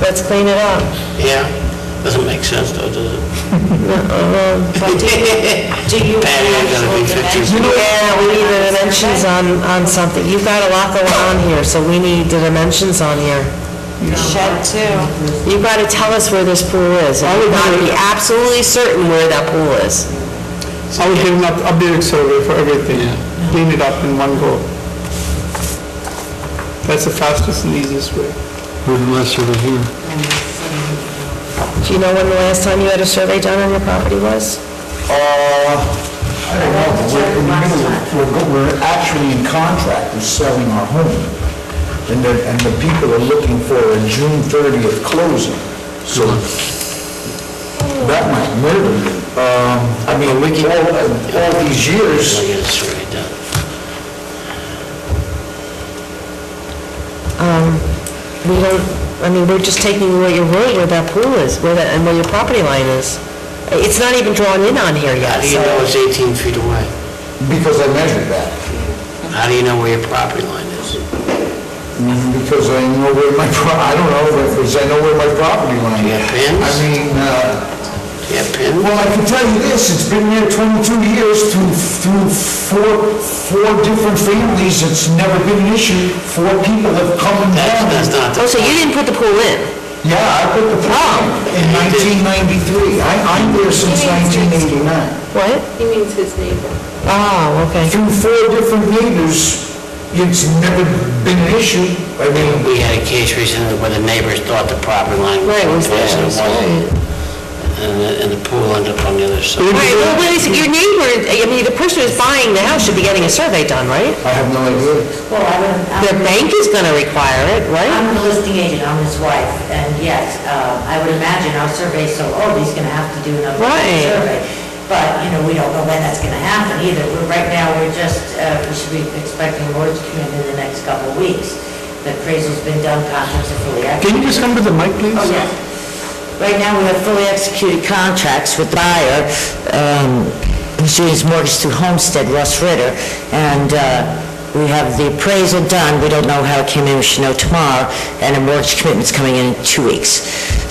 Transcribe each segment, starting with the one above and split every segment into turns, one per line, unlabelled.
Let's clean it up.
Yeah, doesn't make sense though, does it?
But do you, do you need
Patio gotta be
actual
50.
dimensions?
Yeah, we need the dimensions on, on something. You've got a lot going on here, so we need the dimensions on here.
Shed too.
You've got to tell us where this pool is. and We've got to be absolutely certain where that pool is.
I would give an up- updated survey for everything, clean it up in one go. That's the fastest and easiest way.
Where the last survey here?
Do you know when the last time you had a survey done on your property was?
I don't know, but we're, in the middle of- we're, go- we're actually in contract, we're selling our home. And the, and the people are looking for a June thirtieth closing, so that might murder me. Um, I mean, all, all these years,
I guess it's already done.
We don't, I mean, we're just taking what your road, where that pool is, where that, and where your property line is. It's not even drawn in on here
How
yet,
do you
so.
know it's 18 feet away?
because I measured that,
How do you know where your property line is?
because I know where my pro, I don't know, because I know where my property line
Do you
is.
have pins?
I mean, uh,
Do you have pins?
Well, I can tell you this, it's been here 22 years through, through four, four different families, it's never been an issue. Four people have come and
That's,
gone.
that's not
Oh,
the
so you didn't put the pool in?
Yeah, I put the prom in 1993. I, I'm there since 1989.
What?
He means his neighbor.
Oh, okay.
Through four different neighbors, it's never been an issue. I mean,
We had a case recently where the neighbors thought the property line was
Right,
one
was
place and it
theirs,
wasn't. And the, and the pool ended up on the other side.
Right, well, but it's, your neighbor, I mean, the person who's buying the house should be getting a survey done, right?
I have no idea.
Well, I would,
Their
I'm-
bank is gonna require it, right?
I'm the listing agent, I'm his wife, and yes, uh, I would imagine our survey, so, oh, he's gonna have to do another
Right.
survey. But, you know, we don't know when that's gonna happen either. We're, right now, we're just, uh, we should be expecting awards to come in in the next couple of weeks. The appraisal's been done, contracts are fully active.
Can you just come to the mic, please?
Oh, yes. Right now, we have fully executed contracts with the buyer, um, who's doing his mortgage through Homestead, Russ Ritter, and uh, we have the appraisal done, we don't know how it came in, we should know tomorrow, and a mortgage commitment's coming in in two weeks.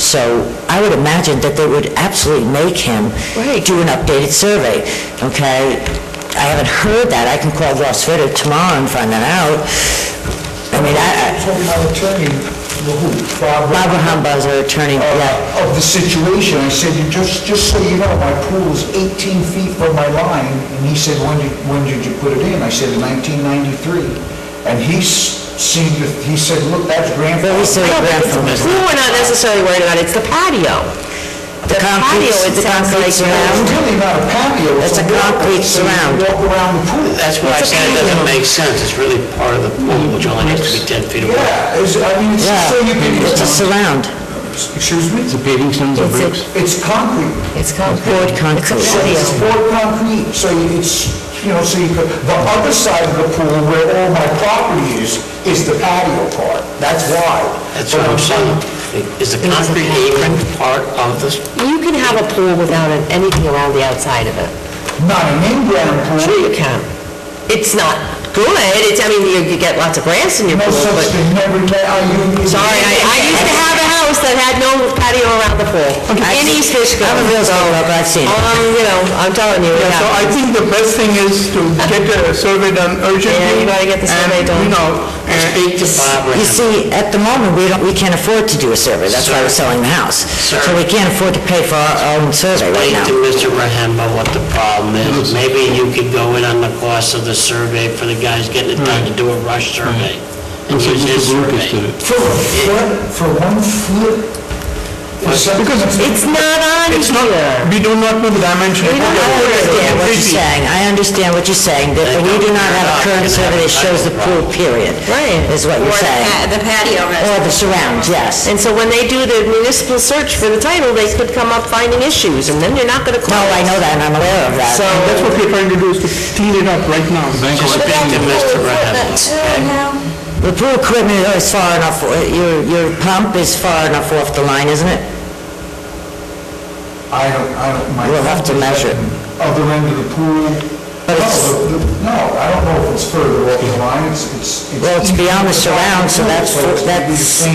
So I would imagine that they would absolutely make him do an updated survey, okay? I haven't heard that, I can call Russ Ritter tomorrow and find that out. I mean, I, I-
Told my attorney, who, Barbara?
Barbara Humbaugh is our attorney, yeah.
uh, of the situation, I said, "You just, just so you know, my pool is 18 feet from my line, and he said, when did, when did you put it in? I said, in 1993, and he s- seemed, to he said, look, that's grandfather.
Very silly
The
grandfather.
pool we're not necessarily worried about, it's the patio. The patio,
concrete-
it
the
sounds
concrete
like,
surround.
um,
It's really not a patio.
It's a
walk-
concrete
it's a
surround.
Walk around the pool.
That's why I
It's a
said it doesn't
patio.
make sense. It's really part of the pool, which only has to be 10 feet away.
Yeah, it's, I mean, it's just so you can.
Yeah, it's a surround,
Excuse me?
Is it paving stones or bricks?
It's concrete.
it's called,
poured concrete.
So it's poured concrete, so it's, you know, so you could, the other side of the pool where all my property is, is the patio part. That's wide.
That's what I'm saying. Is the concrete apron part of this?
you can have a pool without an- anything around the outside of it.
Not an in-ground pool.
Sure you can. It's not good, it's, I mean, you you get lots of grass in your
No
pool,
such
but,
thing, never, let- I you.
sorry, I, I used to have a house that had no patio around the pool. In East Fishkill.
I'm a real estate broker, I've seen it.
Um, you know, I'm telling you,
Yeah, so I
yeah.
think the best thing is to get a survey done urgently.
Yeah, you gotta get the survey
And,
done.
you know,
Uh,
and-
Speak to Barbara.
You see, at the moment, we don't, we can't afford to do a survey, that's why we're selling the house. So we can't afford to pay for our own survey right
Explain to
now.
Mr. Rahamba what the problem is. Maybe you could go in on the cost of the survey for the guys getting it done to do a rush survey. And
Looks like
use his
Mr. Lucas did it.
survey.
For a foot, for one foot? Because
It's not on
it's not,
here.
we do not know the dimension.
We don't
I
know where it is.
understand what you're saying, I understand what you're saying, that we do not have a current survey that shows the pool, period.
Right.
Is what
Or
you're
the
saying.
pa- the patio
Or
rest.
the surround, yes.
And so when they do the municipal search for the title, they could come up finding issues, and then you're not gonna
No,
close.
I know that, and I'm aware of that.
So,
That's what we're trying to do, is to clean it up right now.
Just
But
speak
that's
to
the
Mr.
pool equipment
Rahamba.
too now.
The pool equipment is far enough, uh, your, your pump is far enough off the line, isn't it?
I don't, I don't, my...
We'll have to measure.
Other end of the pool?
But it's-
No, the- the- no, I don't know if it's further off the line, it's, it's...
Well, it's beyond the surround, so that's-
So it's
that's-